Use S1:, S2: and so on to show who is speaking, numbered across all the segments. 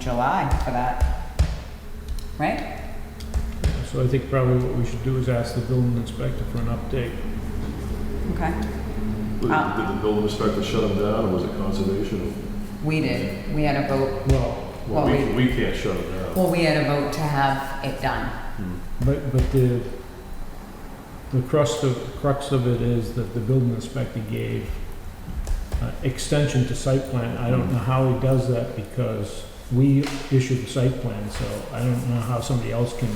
S1: July for that, right?
S2: So I think probably what we should do is ask the building inspector for an update.
S1: Okay,
S3: Did
S1: Ah.
S3: did the building inspector shut them down, or was it conservation?
S1: we did, we had a vote,
S2: Well,
S3: Well,
S1: Well,
S3: we, we can't shut them down. Hmm,
S1: well, we had a vote to have it done.
S2: but, but the, the crust of, crux of it is that the building inspector gave uh, extension to site plan. I don't know how he does that because we issued the site plan, so I don't know how somebody else can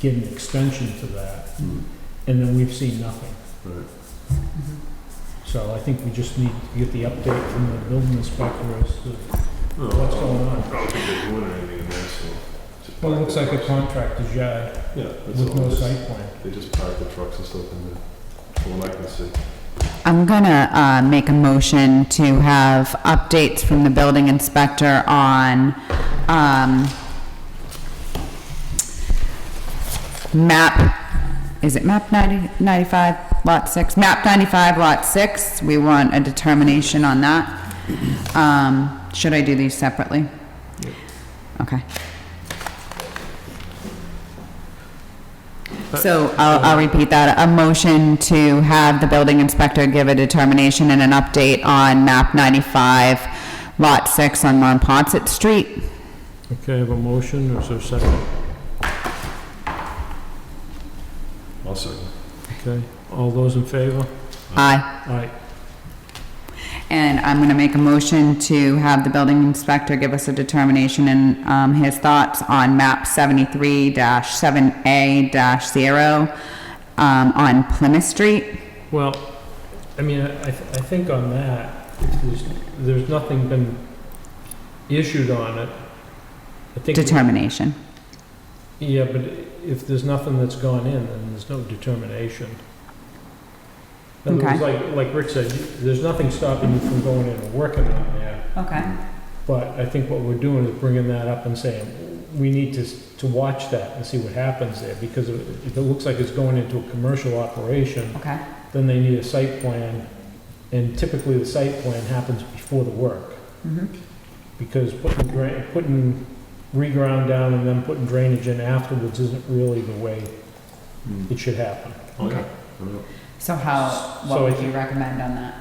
S2: get an extension to that.
S3: Hmm,
S2: And then we've seen nothing.
S3: Right.
S1: Mm-hmm.
S2: So I think we just need to get the update from the building inspector as to
S3: No,
S2: what's
S3: I
S2: going
S3: don't-
S2: on.
S3: I don't think they're doing anything in there, so. just
S2: Well, it
S3: park
S2: looks
S3: the
S2: like a
S3: trucks.
S2: contractor's yard
S3: Yeah. that's
S2: uh, with
S3: all.
S2: no
S3: Just-
S2: site plan.
S3: They just park the trucks and stuff in there, from what I can see.
S1: I'm gonna, uh, make a motion to have updates from the building inspector on, um, map, is it map 90 95, lot six? Map ninety-five, lot six, we want a determination on that. Um, should I do these separately?
S2: Yep.
S1: Okay. So I'll, I'll repeat that. A motion to have the building inspector give a determination and an update on map 95, lot 6 on Monpont Street.
S2: Okay, I have a motion, or is there a second?
S3: I'll second.
S2: Okay, all those in favor?
S1: Aye.
S2: Aye.
S1: And I'm going to make a motion to have the building inspector give us a determination and um, his thoughts on map 73-7A-0 um, on Plymouth Street.
S2: Well, I mean, I, I th- I think on that, if there's, there's nothing been issued on it. I think.
S1: Determination.
S2: Yeah, but if there's nothing that's gone in, then there's no determination. In other words, like, like Rick said, there's nothing stopping you from going in and working on that.
S1: Okay.
S2: But I think what we're doing is bringing that up and saying, we need to, to watch that and see what happens there, because if it looks like it's going into a commercial operation,
S1: Okay.
S2: then they need a site plan, and typically the site plan happens before the work,
S1: Mhm.
S2: because putting, dra- putting reground down and then putting drainage in afterwards isn't really the way
S3: Hmm.
S2: it should happen.
S3: Oh, yeah.
S1: Okay.
S3: Yeah.
S1: So how,
S2: So
S1: what
S2: I
S1: would you recommend on that?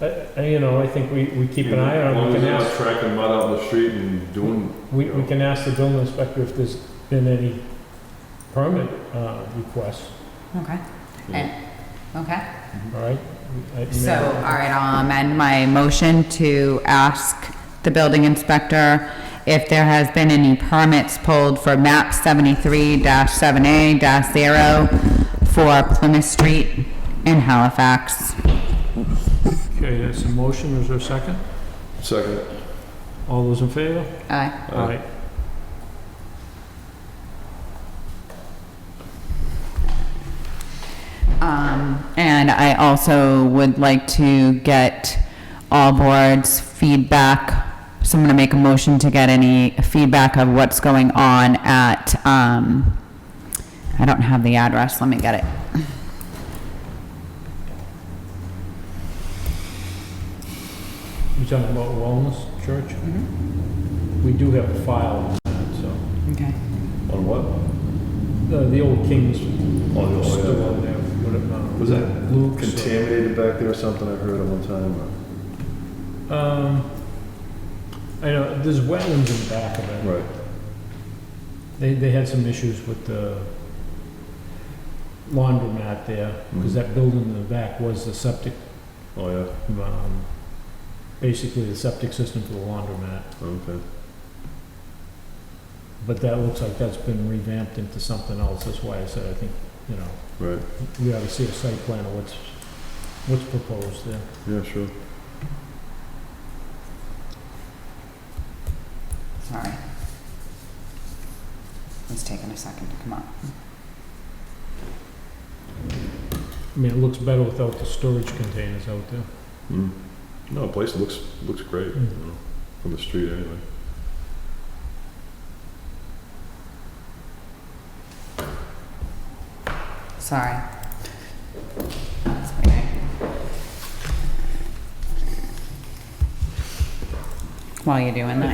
S2: I, I, you know, I think we, we keep an eye
S3: As
S2: on it,
S3: long
S2: we
S3: as
S2: can
S3: they're not
S2: ask,
S3: tracking mud out in the street and doing,
S2: we, we can ask the building inspector if there's been any permit, uh, requests.
S1: Okay. And, okay.
S2: All right? Uh, I-
S1: So, all right, I'll amend my motion to ask the building inspector if there has been any permits pulled for map seventy-three seven A zero for Plymouth Street in Halifax.
S2: Okay, that's a motion, is there a second?
S3: second.
S2: All those in favor?
S1: Aye.
S2: Aye.
S1: Um, and I also would like to get all boards' feedback. So I'm gonna make a motion to get any feedback of what's going on at, um, I don't have the address, let me get it.
S2: You talking about Wellness Church?
S1: Mm-hmm.
S2: We do have a file on that, so,
S1: Okay.
S3: On what?
S2: Uh, the old King's
S3: On Oh, the
S2: still on there. What about-
S3: Was that
S2: Luke's?
S3: Contaminated back there or something, I heard at one time. or-
S2: Um, I know, there's wetlands in the back of it.
S3: Right.
S2: They, they had some issues with the laundromat there, because
S3: Mhm.
S2: that building in the back was the septic,
S3: Oh, yeah,
S2: um, basically the septic system for the laundromat.
S3: okay.
S2: But that looks like that's been revamped into something else, that's why I said, I think, you know,
S3: Right,
S2: we ought to see a site plan of what's, what's proposed there.
S3: yeah, sure.
S1: Sorry. It's taking a second to come up.
S2: I mean, it looks better without the storage containers out there.
S3: Mm. No, the place looks, looks great, you
S2: Mm.
S3: know, from the street anyway.
S1: Sorry. That's okay. While you're doing that.